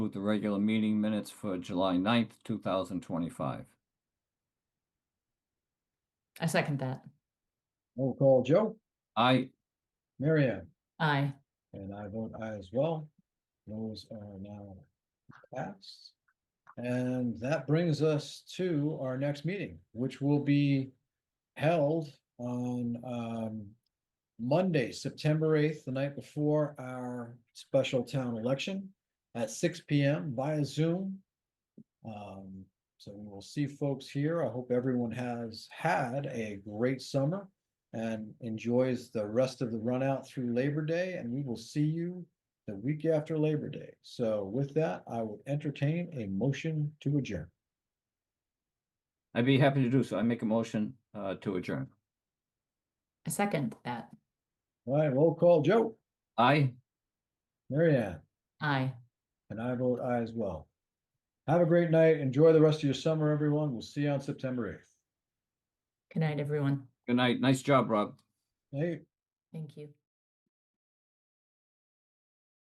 With the regular meeting minutes for July 9th, two thousand twenty-five. I second that. Roll call, Joe, I, Mary Ann, Aye. and I vote aye as well. Those are now passed. And that brings us to our next meeting, which will be held on um Monday, September eighth, the night before our special town election at six P M via Zoom. Um, so we will see folks here. I hope everyone has had a great summer and enjoys the rest of the run out through Labor Day, and we will see you the week after Labor Day. So with that, I will entertain a motion to adjourn. I'd be happy to do so. I make a motion, uh, to adjourn. I second that. All right, roll call, Joe, I, Mary Ann, Aye. and I vote aye as well. Have a great night. Enjoy the rest of your summer, everyone. We'll see you on September eighth. Good night, everyone. good night. Nice job, Rob. Hey. Thank you.